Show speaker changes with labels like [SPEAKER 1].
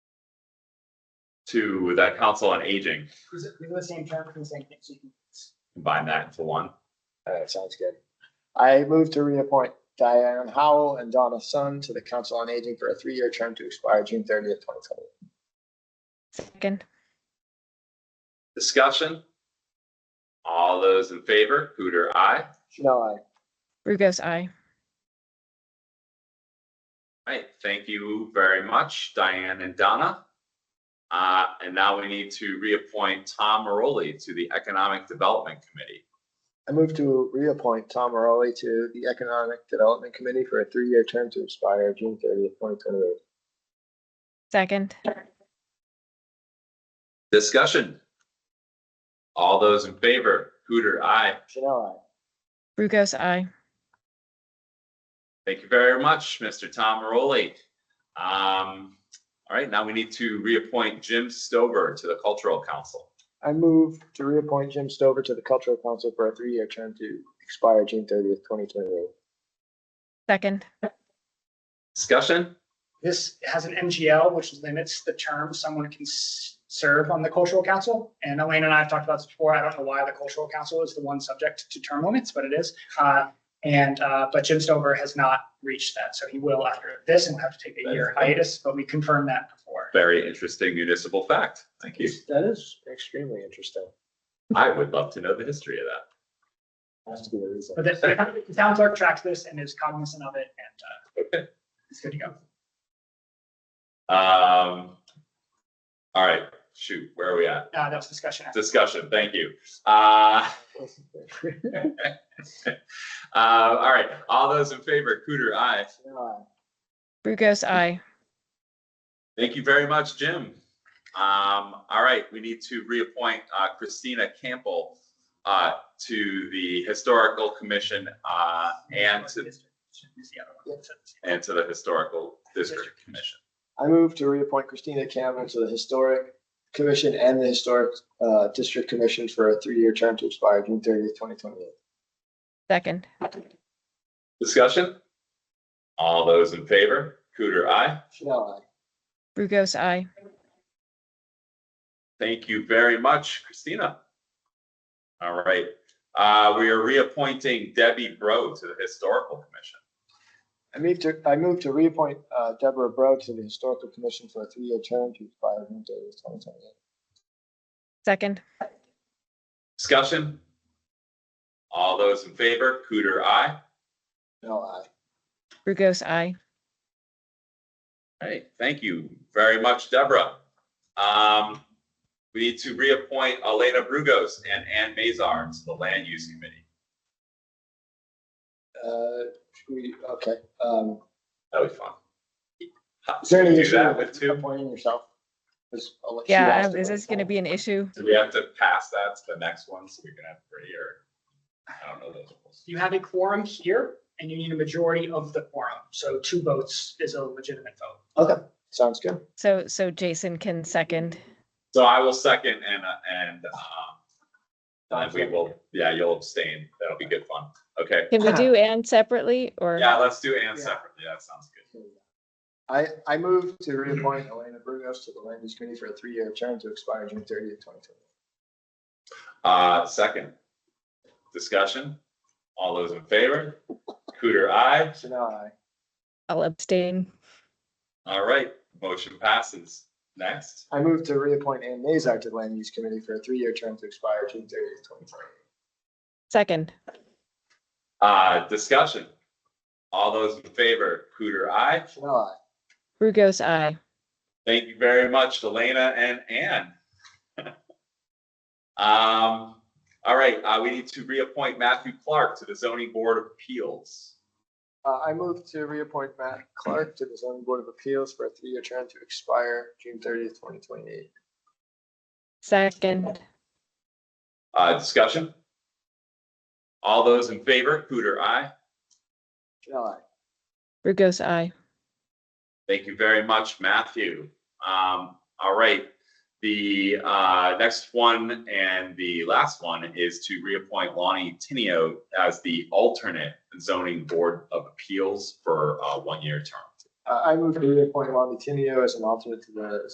[SPEAKER 1] to the Council on Aging,
[SPEAKER 2] Is it the same term, the same thing?
[SPEAKER 1] combine that into one.
[SPEAKER 2] All right, sounds good. I move to reappoint Diane Howell and Donna Sun to the Council on Aging for a three-year term to expire June thirtieth, twenty twenty.
[SPEAKER 3] Second.
[SPEAKER 1] Discussion? All those in favor, Hooter, aye.
[SPEAKER 2] Chanel, I.
[SPEAKER 3] Brugos, I.
[SPEAKER 1] All right, thank you very much, Diane and Donna. Uh, and now we need to reappoint Tom Maroli to the Economic Development Committee.
[SPEAKER 2] I move to reappoint Tom Morelli to the Economic Development Committee for a three-year term to expire June thirtieth, twenty twenty-eight.
[SPEAKER 3] Second.
[SPEAKER 1] Discussion? All those in favor, Hooter, aye.
[SPEAKER 2] Chanel,
[SPEAKER 3] Brugos, I.
[SPEAKER 1] Thank you very much, Mr. Tom Maroli. Um, all right, now we need to reappoint Jim Stover to the Cultural Council.
[SPEAKER 2] I. I move to reappoint Jim Stover to the Cultural Council for a three-year term to expire June thirtieth, twenty twenty-eight.
[SPEAKER 3] Second.
[SPEAKER 1] Discussion?
[SPEAKER 4] This has an MGL, which limits the term someone can s- serve on the cultural council. And Elaine and I have talked about this before. I don't know why the cultural council is the one subject to term limits, but it is. Uh, And, uh, but Jim Stover has not reached that, so he will after this and have to take a year hiatus, but we confirmed that before.
[SPEAKER 1] Very interesting municipal fact. Thank you.
[SPEAKER 2] That is extremely interesting.
[SPEAKER 1] I would love to know the history of that.
[SPEAKER 2] Has to be a reason.
[SPEAKER 4] But the the town clerk tracks this and is cognizant of it and uh, it's good to go.
[SPEAKER 1] Um, all right, shoot, where are we at?
[SPEAKER 4] Uh, That was discussion.
[SPEAKER 1] Discussion, thank you. Uh, uh, all right, all those in favor, Cooter, aye.
[SPEAKER 2] Chanel,
[SPEAKER 3] Brugos, I.
[SPEAKER 1] Thank you very much, Jim. Um, all right, we need to reappoint uh, Christina Campbell uh, to the Historical Commission uh, and to, and to the Historical District Commission.
[SPEAKER 2] I move to reappoint Christina Cameron to the Historic Commission and the Historic uh, District Commission for a three-year term to expire June thirtieth, twenty twenty-eight.
[SPEAKER 3] Second.
[SPEAKER 1] Discussion? All those in favor, Cooter, aye.
[SPEAKER 2] Chanel, I.
[SPEAKER 3] Brugos, I.
[SPEAKER 1] Thank you very much, Christina. All right, uh, we are reappointing Debbie Bro to the Historical Commission.
[SPEAKER 2] I move to, I move to reappoint uh, Deborah Bro to the Historical Commission for a three-year term to expire June thirtieth, twenty twenty-eight.
[SPEAKER 3] Second.
[SPEAKER 1] Discussion? All those in favor, Cooter, aye.
[SPEAKER 2] Chanel, I.
[SPEAKER 3] Brugos, I.
[SPEAKER 1] All right, thank you very much, Deborah. Um, we need to reappoint Elena Brugos and Ann Mazar to the Land Use Committee.
[SPEAKER 2] Uh, should we, okay, um,
[SPEAKER 1] That'll be fun.
[SPEAKER 2] is there any
[SPEAKER 1] Do
[SPEAKER 2] issue
[SPEAKER 1] that with
[SPEAKER 2] with
[SPEAKER 1] two?
[SPEAKER 2] appointing yourself? 'Cause I'll let- she
[SPEAKER 3] Yeah,
[SPEAKER 2] asked
[SPEAKER 3] is
[SPEAKER 2] about
[SPEAKER 3] this going to
[SPEAKER 2] that.
[SPEAKER 3] be an issue?
[SPEAKER 1] Do we have to pass that to the next one so we can have three or? I don't know those rules.
[SPEAKER 4] You have a quorum here and you need a majority of the quorum. So two votes is a legitimate vote.
[SPEAKER 2] Okay, sounds good.
[SPEAKER 3] So, so Jason can second.
[SPEAKER 1] So I will second and, uh, and, um, and we will, yeah, you'll abstain. That'll be good fun. Okay.
[SPEAKER 3] Can we do and separately or?
[SPEAKER 1] Yeah, let's do Ann separately. That sounds good.
[SPEAKER 2] I, I move to reappoint Elena Brugos to the Land Use Committee for a three-year term to expire June thirtieth, twenty twenty.
[SPEAKER 1] Uh, second, discussion. All those in favor? Cooter, aye.
[SPEAKER 2] Chanel, I.
[SPEAKER 3] I'll abstain.
[SPEAKER 1] All right, motion passes. Next,
[SPEAKER 2] I move to reappoint Ann Nazar to the Land Use Committee for a three-year term to expire June thirtieth, twenty twenty.
[SPEAKER 3] Second.
[SPEAKER 1] uh, discussion. All those in favor, Cooter, aye.
[SPEAKER 2] Chanel,
[SPEAKER 3] Brugos, I.
[SPEAKER 1] Thank you very much, Elena and Ann. Um, all right, uh, we need to reappoint Matthew Clark to the zoning board of appeals.
[SPEAKER 2] I. Uh, I move to reappoint Matt Clark to the zoning board of appeals for a three-year term to expire June thirtieth, twenty twenty-eight.
[SPEAKER 3] Second.
[SPEAKER 1] Uh, discussion. All those in favor, Cooter, aye.
[SPEAKER 2] Chanel, I.
[SPEAKER 3] Brugos, I.
[SPEAKER 1] Thank you very much, Matthew. Um, all right. The uh, next one and the last one is to reappoint Lonnie Tinio as the alternate zoning board of appeals for a one-year term.
[SPEAKER 2] Uh, I move to reappoint Lonnie Tinio as an alternate to the